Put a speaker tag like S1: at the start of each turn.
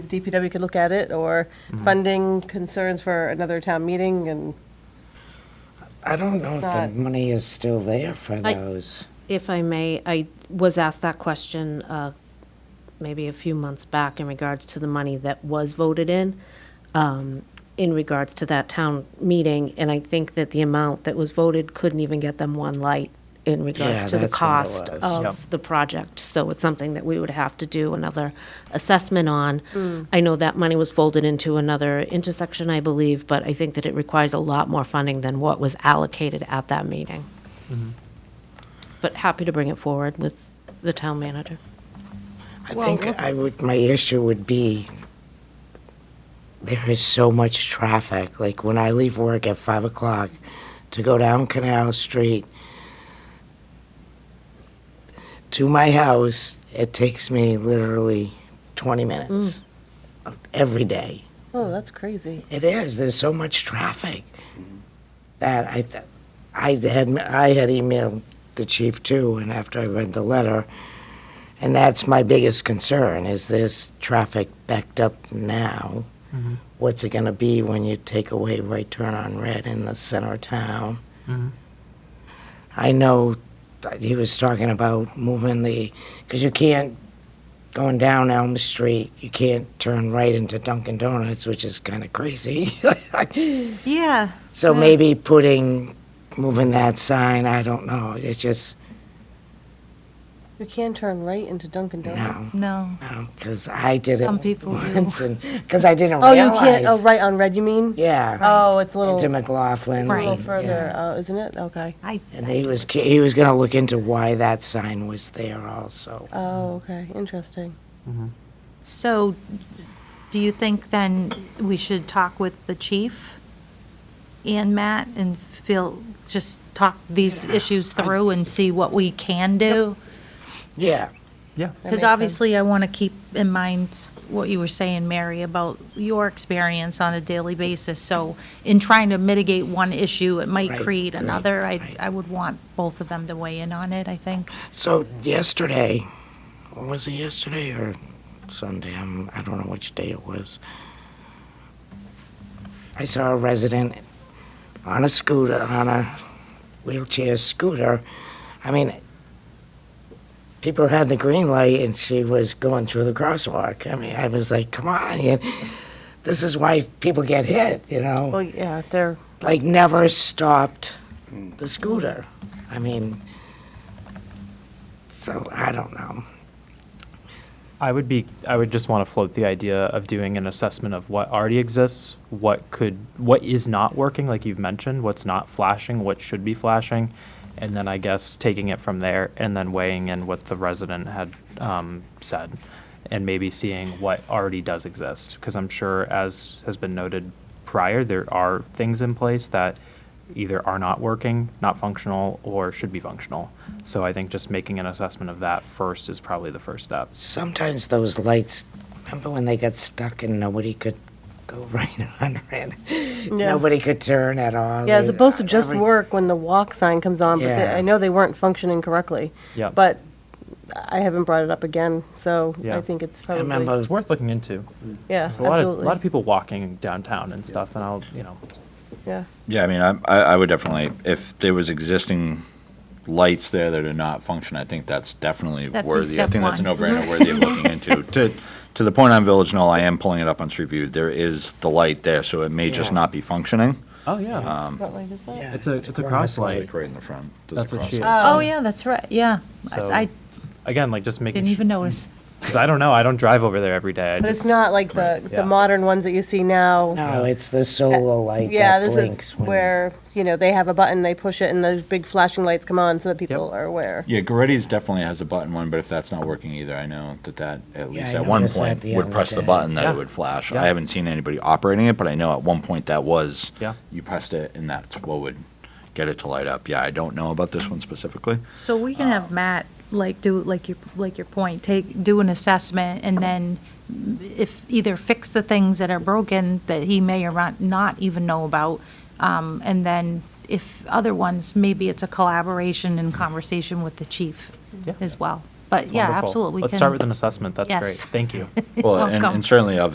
S1: DPW could look at it, or funding concerns for another town meeting, and
S2: I don't know if the
S1: Thought-
S2: money is still there for
S3: I-
S2: those.
S3: If I may, I was asked that question uh, maybe a few months back in regards to the money that was voted in, um, in regards to that town meeting, and I think that the amount that was voted couldn't even get them one light in
S2: Yeah,
S3: regards to the
S2: that's what it
S3: cost
S2: was.
S4: Yep.
S3: of the project. So it's something that we would have to do another assessment on. I know that money was folded into another intersection, I believe, but I think that it requires a lot more funding than what was allocated at that meeting but happy to bring it forward with the town manager.
S2: I think I would, my issue would be, there is so much traffic. Like, when I leave work at five o'clock to go down Canal Street to my house, it takes me literally twenty minutes of- every day.
S1: oh, that's crazy.
S2: It is. There's so much traffic that I, th- I had I had emailed the chief too, and after I read the letter, and that's my biggest concern: is this traffic backed up now? What's it going to be when you take away right turn on red in the center of town? I know that he was talking about moving the because you can't going down Elm Street, you can't turn right into Dunkin' Donuts, which is kind of crazy.
S5: Yeah.
S2: so maybe putting, moving that sign, I don't know. It's just,
S1: You can turn right into Dunkin' Donuts.
S2: no,
S5: No.
S2: because I did it
S5: Some people do.
S2: once, because I didn't
S1: Oh, you
S2: realize.
S1: can't, oh, right on red, you mean?
S2: Yeah.
S1: Oh, it's a little,
S2: Into
S1: a
S2: McLaughlin's.
S1: little
S2: and-
S1: further,
S2: yeah.
S1: uh, isn't it? Okay.
S5: I,
S2: And he was, cu- he was going to look into why that sign was there also.
S1: Oh, okay, interesting.
S5: so do you think then we should talk with the chief and Matt and feel, just talk these issues through and see what we can do?
S2: Yeah.
S4: Yeah.
S1: That makes
S5: Because
S1: sense.
S5: obviously I want to keep in mind what you were saying, Mary, about your experience on a daily basis. So in trying to mitigate one issue, it might
S2: Right,
S5: create
S2: right,
S5: another. I,
S2: right.
S5: I would want both of them to weigh in on it, I think.
S2: So yesterday, or was it yesterday or Sunday? I'm, I don't know which day it was. I saw a resident on a scooter, on a wheelchair scooter. I mean, people had the green light and she was going through the crosswalk. I mean, I was like, come on. You, this is why people get hit, you know?
S1: Well, yeah, they're,
S2: like never stopped the scooter. I mean, so I don't know.
S4: I would be, I would just want to float the idea of doing an assessment of what already exists, what could, what is not working, like you've mentioned, what's not flashing, what should be flashing, and then I guess taking it from there and then weighing in what the resident had um, said, and maybe seeing what already does exist, because I'm sure, as has been noted prior, there are things in place that either are not working, not functional, or should be functional. So I think just making an assessment of that first is probably the first step.
S2: Sometimes those lights, remember when they got stuck and nobody could go right on it? Nobody could turn at all.
S1: yeah, it's
S2: They-
S1: supposed to just
S2: every-
S1: work when the walk sign comes on, but they-
S2: Yeah.
S1: I know they weren't functioning correctly.
S4: Yeah.
S1: But I haven't brought it up again, so I
S4: Yeah.
S1: think it's
S2: I
S1: probably.
S2: remember,
S4: It's worth looking into.
S1: Yeah,
S4: There's a lot of,
S1: absolutely.
S4: lot of people walking downtown and stuff, and I'll, you know,
S1: Yeah.
S6: Yeah, I mean, I, I I would definitely, if there was existing lights there that are not functioning, I think that's definitely
S5: That'd be
S6: worthy. I
S5: step
S6: think that's a
S5: one.
S6: no-brainer worthy of looking into. To, to the point on Village Knoll, I am pulling it up on Street View. There is the light there, so it may just
S2: Yeah.
S6: not be functioning.
S4: oh yeah,
S1: What light is that?
S2: yeah,
S4: it's a it's a
S2: cross
S4: cross light.
S6: Like right in the front. There's a
S4: That's what she.
S6: crosswalk.
S4: Had
S5: Oh,
S4: said.
S5: yeah, that's right, yeah.
S4: So,
S5: I I
S4: Again, like just making
S5: didn't even notice.
S4: because I don't know. I don't drive over there every day. I
S1: But
S4: just,
S1: it's not like the, the
S4: Yeah.
S1: modern ones that you see now.
S2: No, it's the solo light
S1: Yeah,
S2: that
S1: this
S2: blinks
S1: is
S2: when.
S1: where, you know, they have a button, they push it, and those big flashing lights come on so that people
S4: Yep.
S1: are aware.
S6: Yeah, Goretti's definitely has a button one, but if that's not working either, I know that that, at least
S2: I
S6: at one
S2: noticed that
S6: point,
S2: the
S6: would
S2: other
S6: press the
S2: day.
S6: button that
S4: Yeah.
S6: it would flash.
S4: Yeah.
S6: I haven't seen anybody operating it, but I know at one point that was,
S4: Yeah.
S6: you pressed it and that's what would get it to light up. Yeah, I don't know about this one specifically.
S5: So we can
S4: Um,
S5: have Matt, like, do, like your, like your point, take, do an assessment, and then if, either fix the things that are broken that he may or not- not even know about, um, and then if other ones, maybe it's a collaboration and conversation with the chief
S4: Yeah.
S5: as well. But
S4: it's
S5: yeah,
S4: wonderful.
S5: absolutely. we
S4: Let's
S5: can-
S4: start with an assessment. That's
S5: Yes.
S4: great. Thank you.
S6: Well, and-
S5: Welcome.
S6: and certainly of